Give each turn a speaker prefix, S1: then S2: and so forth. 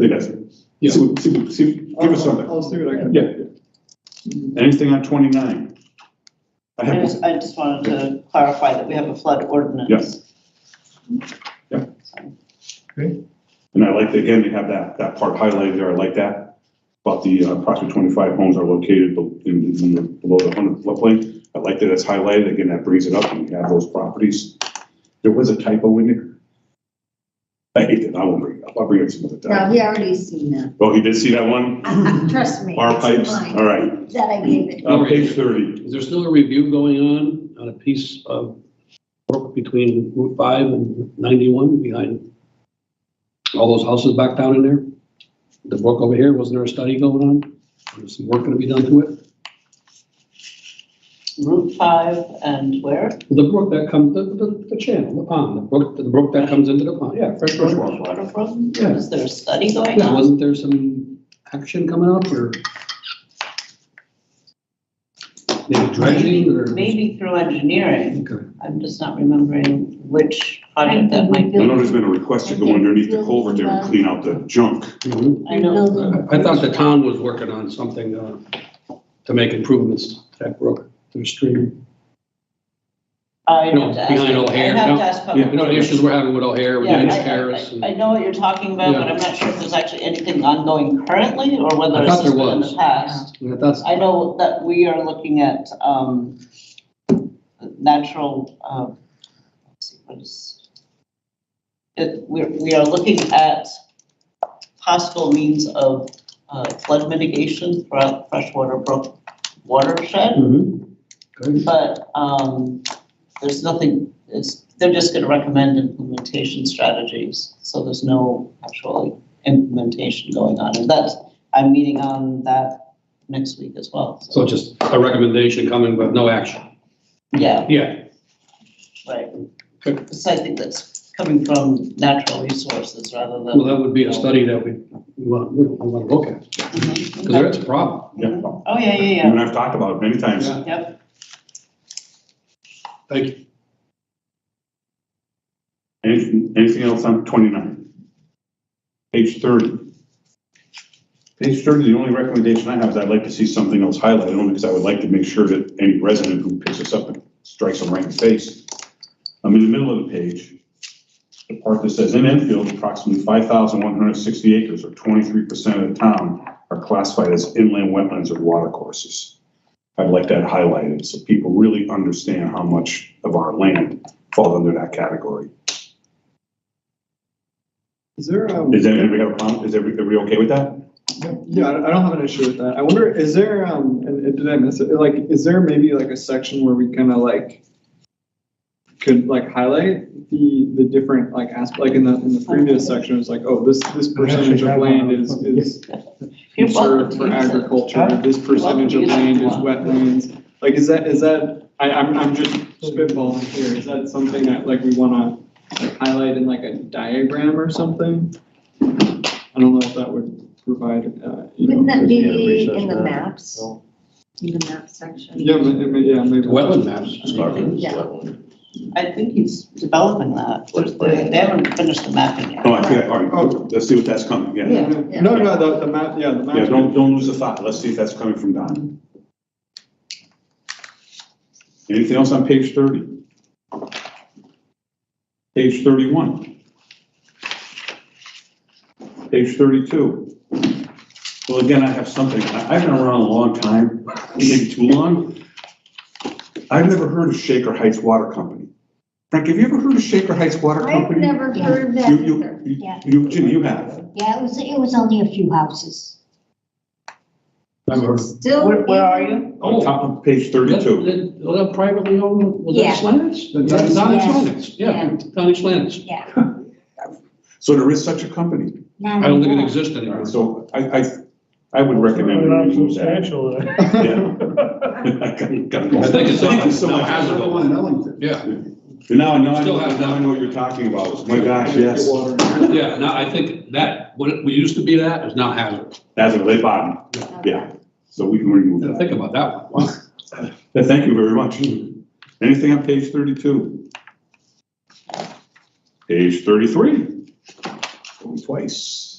S1: do that.
S2: Yeah.
S1: See, see, see, give us something.
S2: I'll I'll see what I can.
S1: Yeah. yeah. Anything on twenty-nine? I
S3: I
S1: have,
S3: just, I just wanted to clarify that we have a flood ordinance.
S1: Yeah.
S3: So,
S1: and I like, that, again, they have that, that part highlighted there, I like that. About the uh, approximately twenty-five homes are located be- in, in the, below the hundred floodplain. I like that it's highlighted, again, that brings it up, and we have those properties. There was a typo in there. I hate that, I won't bring it up, I'll bring it some other
S4: No,
S1: time.
S4: he already seen that.
S1: Oh, you did see that one?
S4: Trust me.
S1: Our
S4: it's
S1: pipes,
S4: mine
S1: all right.
S4: That I gave it.
S1: On page thirty,
S5: Is there still a review going on on a piece of work between Route 5 and 91 behind all those houses back down in there? The brook over here, wasn't there a study going on? There's some work going to be done to it?
S3: Route five and where?
S5: The brook that comes, the, the, the channel, the pond, the brook, the brook that comes into the pond, yeah, fresh fresh water.
S3: Water from?
S5: Yeah.
S3: Is there a study going
S5: Yeah,
S3: on?
S5: wasn't there some action coming up or? Maybe dredging or?
S3: Maybe through engineering,
S5: Okay.
S3: I'm just not remembering which project that might be.
S1: I know there's been a request to go underneath the culvert there and clean out the junk.
S5: Mhm.
S3: I know,
S5: I I thought the town was working on something uh, to make improvements to that brook, to the stream.
S3: I
S5: No,
S3: have to ask.
S5: behind O'Hare,
S3: I have
S5: no.
S3: to ask.
S1: Yeah,
S5: You know, the issues we're having with O'Hare, with
S3: Yeah, I-
S5: Dennis
S3: I-
S5: Harris. and-
S3: I I know what you're talking about, but
S5: Yeah.
S3: I'm not sure if there's actually anything ongoing currently or
S5: I
S3: whether it's
S5: thought
S3: just
S5: there
S3: been in
S5: was.
S3: the past.
S5: and That's,
S3: I know that we are looking at, um, natural, uh, let's see, what is? It, we're, we are looking at possible means of uh, flood mitigation throughout freshwater brook watershed,
S5: Mhm. Good.
S3: but, um, there's nothing, it's, they're just gonna recommend implementation strategies, so there's no actual implementation going on, and that's, I'm meeting on that next week as well, so.
S5: so just a recommendation coming, but no action.
S3: Yeah,
S5: Yeah,
S3: right.
S5: Good.
S3: So I think that's coming from natural resources rather
S5: well,
S3: than.
S5: that would be a study that we want, we want to look at, because
S3: Mhm.
S5: that's a problem.
S1: Yeah.
S3: Oh, yeah,
S1: You
S3: yeah,
S1: and I've talked about it many times.
S5: Yeah.
S3: yeah, yep.
S5: Thank you.
S1: Anything, anything else on twenty-nine? Page thirty. Page thirty, the only recommendation I have is I'd like to see something else highlighted, only because I would like to make sure that any resident who picks this up and strikes them right in the face. I'm in the middle of the page. The part that says in Enfield, approximately five thousand one hundred sixty acres or twenty-three percent of the town are classified as inland wetlands or watercourses. I'd like that highlighted so people really understand how much of our land falls under that category.
S2: Is there, um,
S1: Is everybody have a problem? Is everybody, are we okay with that?
S2: yeah, I I don't have an issue with that. I wonder, is there, um, and- and did I miss it? Like, is there maybe like a section where we kind of like could like highlight the, the different like aspect, like in the, in the previous section, it's like, oh, this, this percentage of land is, is
S3: You're welcome
S2: reserved
S3: to
S2: for
S3: use it.
S2: agriculture, this percentage of land is wetlands. Like, is that, is that, I, I'm, I'm just spitballing here. Is that something that like we wanna like, highlight in like a diagram or something? I don't know if that would provide, uh, you know.
S4: Wouldn't that be
S6: Yeah,
S4: in the
S6: research
S4: maps? In the map section?
S2: Yeah, ma- ma- yeah, maybe.
S5: Wetland maps.
S4: Yeah.
S3: I think he's developing that. There's- They they haven't finished the mapping yet.
S1: Oh, I see, all right, let's see what that's coming, yeah.
S4: Yeah.
S2: No, no, the, the map, yeah, the map.
S1: Yeah, don't, don't lose the thought, let's see if that's coming from Don. Anything else on page thirty? Page thirty-one. Page thirty-two. Well, again, I have something, I, I've been around a long time, maybe too long. I've never heard of Shaker Heights Water Company. Frank, have you ever heard of Shaker Heights Water
S4: I've
S1: Company?
S4: never heard of that
S1: You, you,
S4: either.
S1: you,
S7: Yeah.
S1: you, Jim, you have.
S7: Yeah, it was, it was only a few houses.
S4: Still.
S3: Where, where are you?
S1: On top of page
S5: That-
S1: thirty-two.
S5: that- well, that privately owned, was
S7: Yeah.
S5: that Slantis? That- That's Donnie
S7: Yeah.
S5: Slantis, yeah, Donnie Slantis.
S7: Yeah.
S1: So there is such a company.
S5: I don't think it exists
S1: All
S5: anymore.
S1: right, So I, I, I would recommend.
S6: Not
S1: we use that.
S6: substantial, though.
S1: I gotta- gotta go.
S5: I think it's
S1: Thank you so
S5: now
S1: much.
S5: hazardous. Yeah,
S1: Now, now, I
S5: Still
S1: know-
S5: has
S1: now I know what you're talking about. My gosh, yes.
S2: Water.
S5: yeah, now I think that, what it- what used to be that is now hazardous.
S1: That's a late bottom. Yeah. So we can remove
S5: Now
S1: that.
S5: Think about that one.
S1: Yeah, Thank you very much. Anything on page thirty-two? Page thirty-three. Going twice.